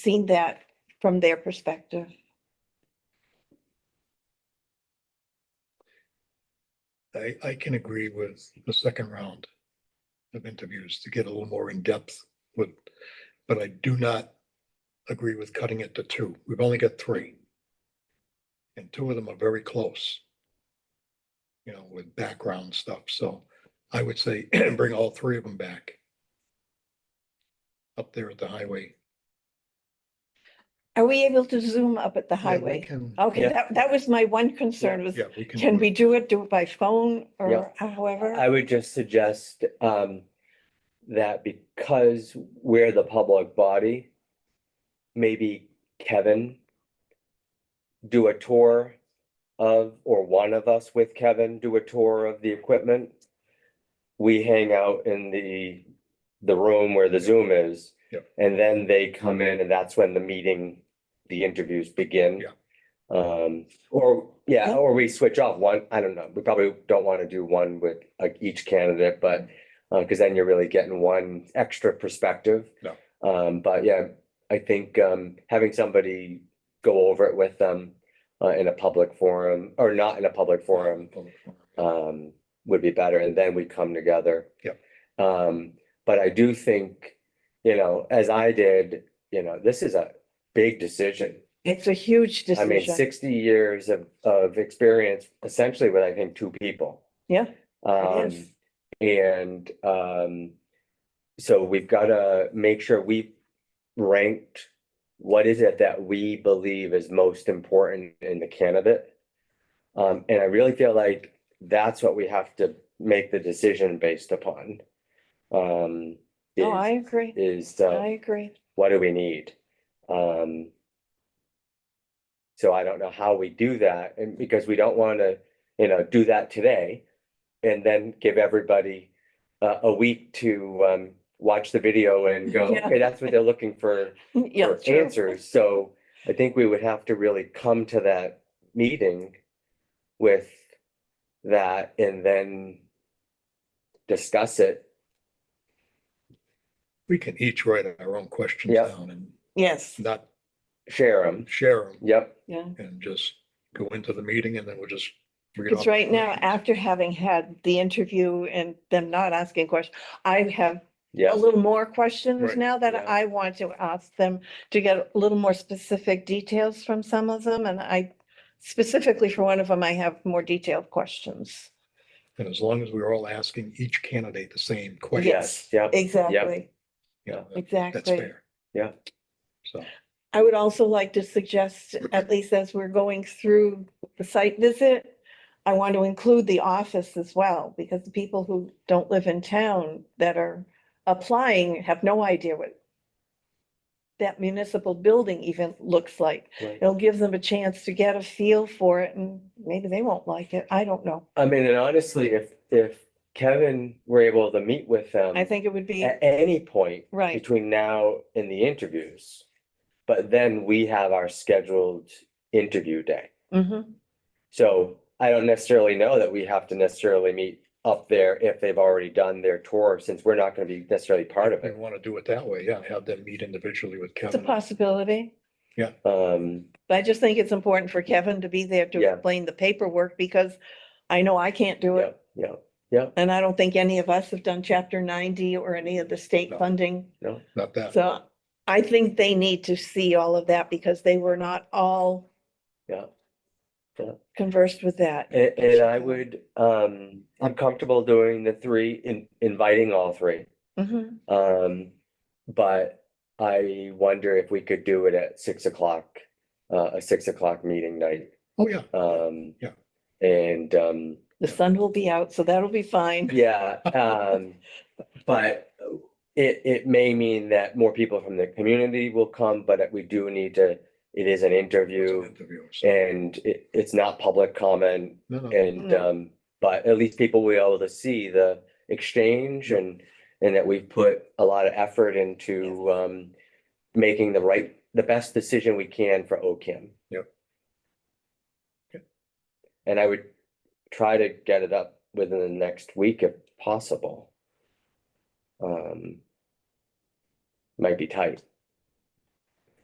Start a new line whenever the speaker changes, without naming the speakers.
seen that from their perspective.
I, I can agree with the second round of interviews to get a little more in depth with, but I do not agree with cutting it to two. We've only got three. And two of them are very close. You know, with background stuff, so I would say bring all three of them back. Up there at the highway.
Are we able to zoom up at the
Yeah, we
highway?
can-
Okay,
Yeah.
that, that was my one concern was,
Yeah, we can.
can
do
we
it.
do it, do it by phone
Yeah.
or however?
I would just suggest um that because we're the public body, maybe Kevin do a tour of, or one of us with Kevin do a tour of the equipment. We hang out in the the room where the Zoom is.
Yep.
And then they come in and that's when the meeting, the interviews begin.
Yeah.
Um, or, yeah,
Yeah.
or we switch off one, I don't know, we probably don't want to do one with like each candidate, but uh, cause then you're really getting one extra perspective.
No.
Um, but yeah, I think um having somebody go over it with them uh in a public forum or not in a public forum
Public forum.
um would be better and then we come together.
Yep.
Um, but I do think, you know, as I did, you know, this is a big decision.
It's a huge
I mean,
decision.
sixty years of, of experience essentially with, I think, two people.
Yeah,
Um,
is.
and, um, so we've gotta make sure we ranked what is it that we believe is most important in the candidate? Um, and I really feel like that's what we have to make the decision based upon. Um,
No, I
is,
agree.
is, uh,
I agree.
what do we need? Um. So I don't know how we do that and because we don't want to, you know, do that today. And then give everybody a, a week to, um, watch the video and go,
Yeah.
okay, that's what they're looking for,
Yeah,
for
true.
answers. So I think we would have to really come to that meeting with that and then discuss it.
We can each write our own questions
Yeah.
down and
Yes,
not
Share them.
share them.
Yep,
yeah.
and just go into the meeting and then we'll just. read off
Because
the
right now,
questions.
after having had the interview and them not asking questions, I have
yeah.
a little more questions
Right.
now that
Yeah.
I want to ask them to get a little more specific details from some of them, and I specifically for one of them, I have more detailed questions.
And as long as we're all asking each candidate the same question,
Yes, yep.
Exactly,
you know, that- that's
exactly.
fair.
Yeah.
So,
I would also like to suggest, at least as we're going through the site visit, I want to include the office as well, because the people who don't live in town that are applying have no idea what that municipal building even looks like.
Right.
It'll give them a chance to get a feel for it and maybe they won't like it. I don't know.
I mean, and honestly, if, if Kevin were able to meet with them.
I think it would be,
At any point
right,
between now and the interviews. But then we have our scheduled interview day.
mhm,
So I don't necessarily know that we have to necessarily meet up there if they've already done their tour, since we're not gonna be necessarily part of
if we
it.
want to do it that way, yeah, have them meet individually with
it's a
Kevin.
possibility.
Um,
But I just think it's important for Kevin to be there to
Yeah.
explain the paperwork because I know I can't do
yeah,
it.
yeah,
And I don't think any of us have done chapter ninety or any of the state
No.
funding.
Not that,
So I think they need to see all of that because they were not all
yeah.
conversed with that.
And, and I would, um, I'm comfortable doing the three, in, inviting all three.
Mhm.
Um, but I wonder if we could do it at six o'clock, uh, a six o'clock meeting night.
oh, yeah,
Um.
Yeah.
And, um,
The sun will be out, so that'll be fine.
yeah, um, but it, it may mean that more people from the community will come, but we do need to, it is
it's an
an interview
interview, so-
and it, it's not public comment
no, no,
and,
No.
um, but at least people will be able to see the exchange and, and that we've put a lot of effort into, um, making the right, the best decision we can for OCAM.
Yep. Yep.
And I would try to get it up within the next week if possible. Um, might be tight.